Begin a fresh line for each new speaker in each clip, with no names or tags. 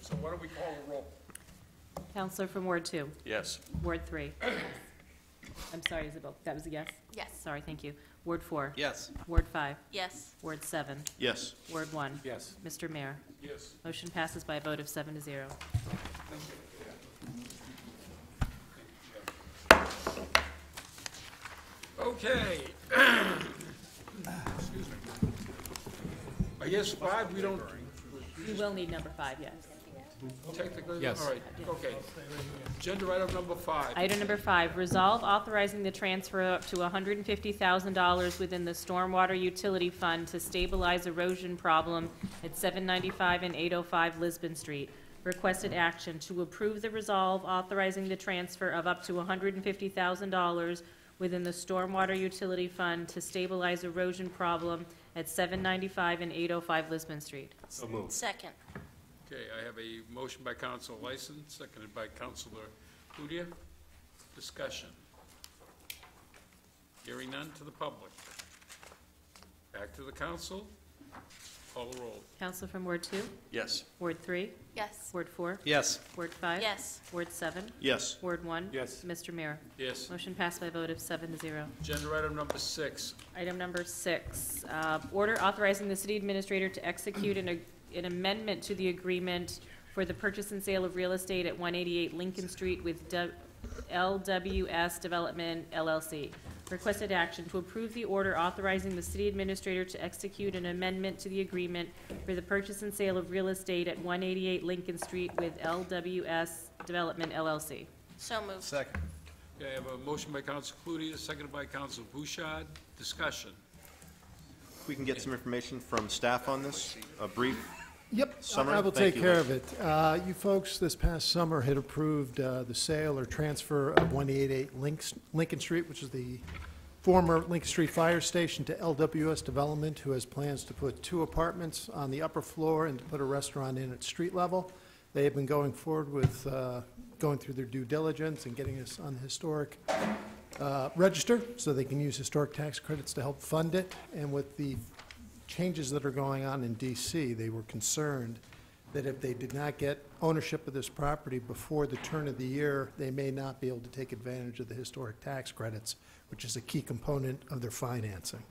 So why don't we call a roll?
Counselor from Ward two,
Yes.
Ward three. I'm sorry, Isabel, that was a yes?
Yes.
Sorry, thank you. Ward four.
Yes.
Ward five,
Yes.
Ward seven,
Yes.
Ward one.
Yes.
Mr. Mayor,
Yes.
motion passes by a vote of seven to zero.
Okay. Excuse me. I guess five, we don't
You will need number five, yes.
technically, all right, okay. Agenda item number five.
Item number five, resolve authorizing the transfer up to hundred and fifty thousand dollars within the Stormwater Utility Fund to stabilize erosion problem at seven ninety-five and eight oh five Lisbon Street. Requested action to approve the resolve authorizing the transfer of up to hundred and fifty thousand dollars within the Stormwater Utility Fund to stabilize erosion problem at seven ninety-five and eight oh five Lisbon Street.
Second.
Okay, I have a motion by Council Lyson, seconded by Councilor Cludia. Discussion. Hearing none to the public. Back to the council. Call a roll.
Counsel from Ward two,
Yes.
Ward three,
Yes.
Ward four,
Yes.
Ward five.
Yes.
Ward seven,
Yes.
Ward one?
Yes.
Mr. Mayor?
Yes.
Motion passed by a vote of seven to zero.
Agenda item number six.
Item number six, uh, order authorizing the city administrator to execute an ag- an amendment to the agreement for the purchase and sale of real estate at 188 Lincoln Street with Du- LWS Development LLC. Requested action to approve the order authorizing the city administrator to execute an amendment to the agreement for the purchase and sale of real estate at 188 Lincoln Street with LWS Development LLC.
So moved.
Second.
Okay, I have a motion by Council Cludia, seconded by Council Bouchard. Discussion.
We can get some information from staff on this, a brief,
Yep, I- I
Summer,
will
thank
take
you,
care of it. Uh, You folks, this past summer, had approved uh, the sale or transfer of 188 Links- Lincoln Street, which is the former Lincoln Street Fire Station, to LWS Development, who has plans to put two apartments on the upper floor and to put a restaurant in at street level. They have been going forward with, uh, going through their due diligence and getting us on the historic uh, register, so they can use historic tax credits to help fund it. And with the changes that are going on in DC, they were concerned that if they did not get ownership of this property before the turn of the year, they may not be able to take advantage of the historic tax credits, which is a key component of their financing.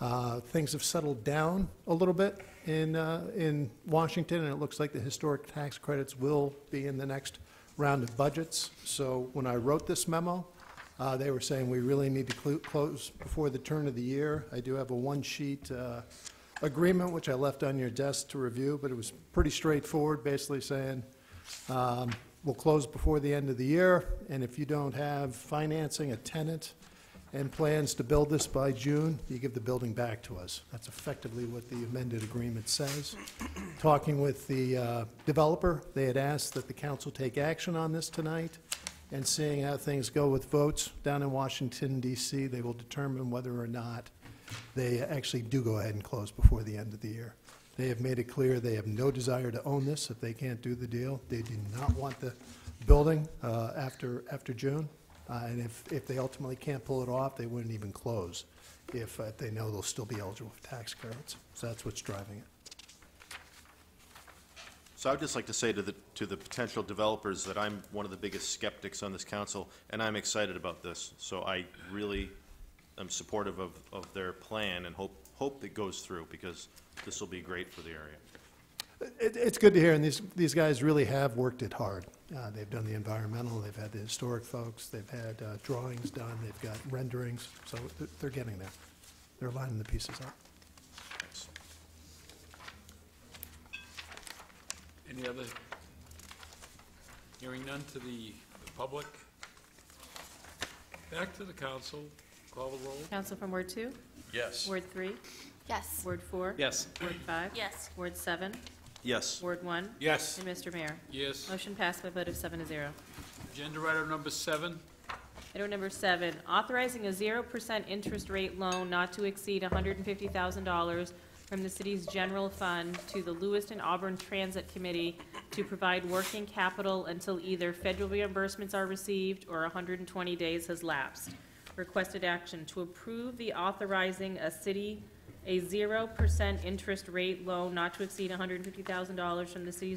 Uh, Things have settled down a little bit in, uh, in Washington, and it looks like the historic tax credits will be in the next round of budgets. So when I wrote this memo, uh, they were saying we really need to clu- close before the turn of the year. I do have a one-sheet uh, agreement, which I left on your desk to review, but it was pretty straightforward, basically saying, um, we'll close before the end of the year, and if you don't have financing, a tenant, and plans to build this by June, you give the building back to us. That's effectively what the amended agreement says. Talking with the uh, developer, they had asked that the council take action on this tonight, and seeing how things go with votes down in Washington DC, they will determine whether or not they actually do go ahead and close before the end of the year. They have made it clear they have no desire to own this if they can't do the deal. They do not want the building uh, after, after June. Uh, And if, if they ultimately can't pull it off, they wouldn't even close if uh, they know they'll still be eligible for tax credits. So that's what's driving it.
So I'd just like to say to the, to the potential developers that I'm one of the biggest skeptics on this council, and I'm excited about this. So I really am supportive of, of their plan and hope, hope it goes through, because this will be great for the area.
it. It's good to hear, and these, these guys really have worked it hard. Uh, They've done the environmental, they've had the historic folks, they've had uh, drawings done, they've got renderings, so they're- they're getting there. They're lining the pieces up.
Thanks.
Any other? Hearing none to the the public. Back to the council. Call the roll.
Counsel from Ward two,
Yes.
Ward three,
Yes.
Ward four?
Yes.
Ward five?
Yes.
Ward seven?
Yes.
Ward one?
Yes.
And Mr. Mayor?
Yes.
Motion passed by a vote of seven to zero.
Agenda item number seven.
Item number seven, authorizing a zero percent interest rate loan not to exceed hundred and fifty thousand dollars from the city's general fund to the Lewiston Auburn Transit Committee to provide working capital until either federal reimbursements are received or hundred and twenty days has lapsed. Requested action to approve the authorizing a city, a zero percent interest rate loan not to exceed hundred and fifty thousand dollars from the city's